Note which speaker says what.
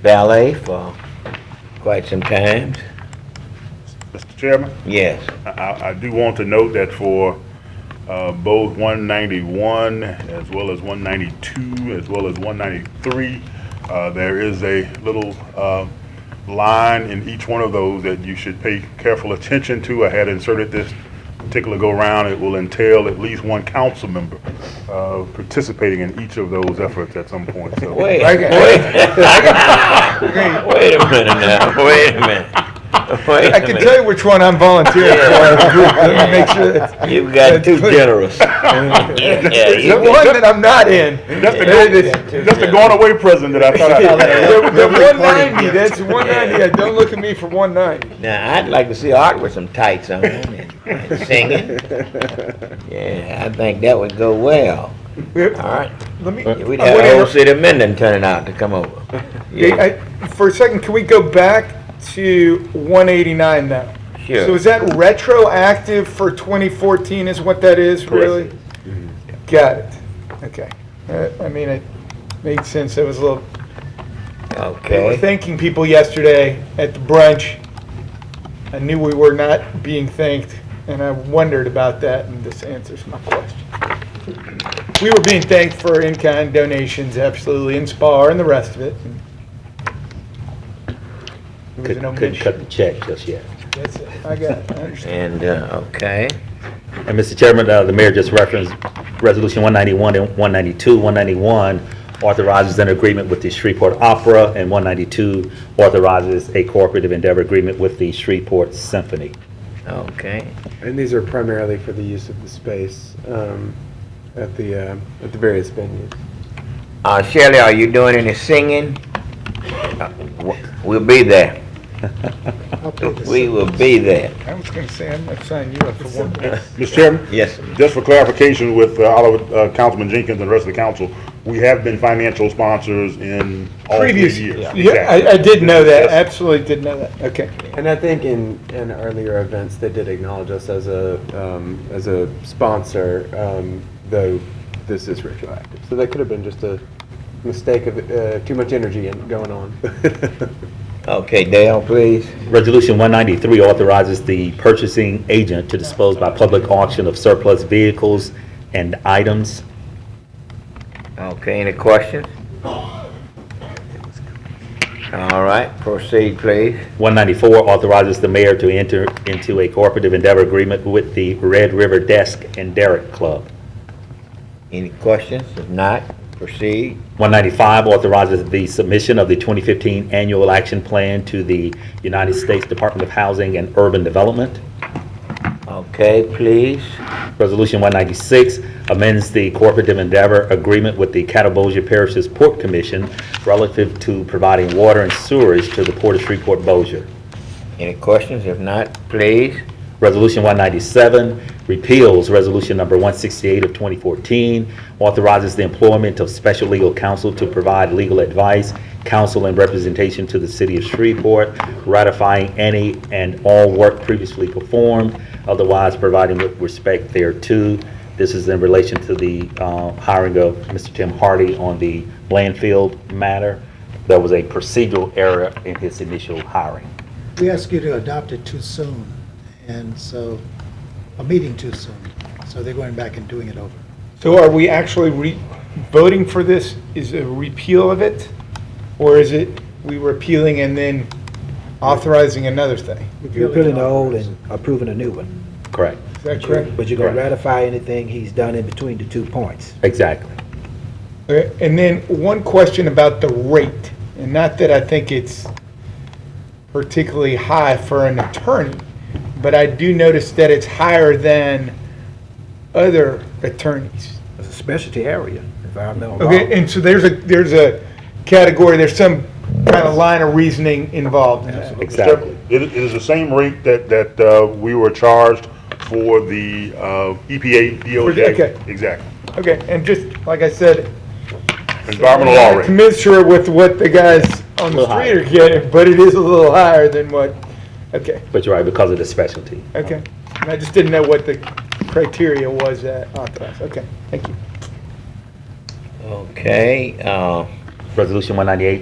Speaker 1: valet for quite some time.
Speaker 2: Mr. Chairman,
Speaker 1: Yes.
Speaker 2: I- I, I do want to note that for, uh, both one ninety-one as well as one ninety-two, as well as one ninety-three, uh, there is a little, uh, line in each one of those that you should pay careful attention to. I had inserted this particular go-round. It will entail at least one council member, uh, participating in each of those efforts at some point, so.
Speaker 1: Wait, wait. Wait a minute now, wait a minute. Wait
Speaker 3: I
Speaker 1: a
Speaker 3: can tell
Speaker 1: minute.
Speaker 3: you which one I'm volunteering for. as a group. Let me make sure. it's-
Speaker 1: You got too
Speaker 3: That's good.
Speaker 1: generous. Yeah,
Speaker 3: The
Speaker 1: you-
Speaker 3: one that I'm not in.
Speaker 2: That's the,
Speaker 3: There it
Speaker 2: go-
Speaker 3: is.
Speaker 2: that's the going-away present that I thought I
Speaker 3: The the 190, that's 190. Don't look at me for 190.
Speaker 1: Now, I'd like to see Art with some tights on and and singing. Yeah, I think that would go well. All right,
Speaker 3: Let me.
Speaker 1: we'd
Speaker 3: I
Speaker 1: have
Speaker 3: wanna
Speaker 1: the whole
Speaker 3: interrupt-
Speaker 1: city of Mendon turning out to come over. Yeah,
Speaker 3: I- I- For a second, can we go back to 189 now?
Speaker 1: Sure.
Speaker 3: So is that retroactive for 2014 is what that is, really? Got it. Okay. Uh, I mean, it made sense. It was a little We were
Speaker 1: okay.
Speaker 3: thanking people yesterday at the brunch. I knew we were not being thanked, and I wondered about that, and this answers my question. We were being thanked for in-kind donations, absolutely, and spa and the rest of it. It was an
Speaker 4: Couldn't, couldn't
Speaker 3: omission.
Speaker 4: cut the check just yet.
Speaker 3: That's it. I got it. I understand.
Speaker 1: And, uh, okay,
Speaker 4: And Mr. Chairman, uh, the mayor just referenced Resolution 191 and 192. 191 authorizes an agreement with the Shreveport Opera, and 192 authorizes a cooperative endeavor agreement with the Shreveport Symphony.
Speaker 1: okay.
Speaker 5: And these are primarily for the use of the space um, at the, uh, at the various venues.
Speaker 1: Uh, Shelley, are you doing any singing? Uh, w- We'll be there.
Speaker 3: I'll pay this.
Speaker 1: We will be there.
Speaker 3: I was gonna say, I'm not signing you up for one.
Speaker 2: Mr. Chairman?
Speaker 1: Yes.
Speaker 2: Just for clarification with uh, Oliver, uh, Councilman Jenkins and the rest of the council, we have been financial sponsors in all three
Speaker 3: Previous,
Speaker 2: years.
Speaker 3: yeah, I, I did know that, absolutely did know that, okay.
Speaker 5: And I think in, in earlier events, they did acknowledge us as a, um, as a sponsor, um, though this is retroactive. So that could have been just a mistake of uh, too much energy in- going on.
Speaker 1: Okay, Dale, please.
Speaker 4: Resolution 193 authorizes the purchasing agent to dispose by public auction of surplus vehicles and items.
Speaker 1: Okay, any questions? All right, proceed, please.
Speaker 4: 194 authorizes the mayor to enter into a cooperative endeavor agreement with the Red River Desk and Derrick Club.
Speaker 1: Any questions? If not, proceed.
Speaker 4: 195 authorizes the submission of the 2015 Annual Action Plan to the United States Department of Housing and Urban Development.
Speaker 1: Okay, please.
Speaker 4: Resolution 196 amends the Cooperative Endeavor Agreement with the Catawba Parish's Port Commission relative to providing water and sewerage to the Port of Shreveport Bossier.
Speaker 1: Any questions? If not, please.
Speaker 4: Resolution 197 repeals Resolution Number 168 of 2014, authorizes the employment of special legal counsel to provide legal advice, counsel, and representation to the city of Shreveport, ratifying any and all work previously performed, otherwise providing with respect thereto. This is in relation to the uh, hiring of Mr. Tim Hardy on the landfill matter. There was a procedural error in his initial hiring.
Speaker 6: We asked you to adopt it too soon, and so, a meeting too soon, so they're going back and doing it over.
Speaker 3: So are we actually re, voting for this is a repeal of it? Or is it we repealing and then authorizing another thing?
Speaker 7: You're repealing the old and approving a new one.
Speaker 4: Correct.
Speaker 3: Is that correct?
Speaker 7: But you're gonna
Speaker 4: Correct.
Speaker 7: ratify anything he's done in between the two points.
Speaker 4: Exactly.
Speaker 3: Uh, And then one question about the rate, and not that I think it's particularly high for an attorney, but I do notice that it's higher than other attorneys.
Speaker 7: It's a specialty area, if I know.
Speaker 3: Okay, and so there's a, there's a category, there's some kind of line of reasoning involved in that.
Speaker 4: Exactly.
Speaker 2: It it is the same rate that, that uh, we were charged for the uh, EPA DOJ.
Speaker 3: okay.
Speaker 2: Exactly.
Speaker 3: Okay, and just, like I said,
Speaker 2: Environmental law rate.
Speaker 3: Commensurate with what the guys on the
Speaker 4: Little
Speaker 3: street are getting, but it is a little higher than what, okay,
Speaker 4: But you're right, because of the specialty.
Speaker 3: okay. And I just didn't know what the criteria was at Authorized, okay, thank you.
Speaker 1: Okay, uh,
Speaker 4: Resolution 198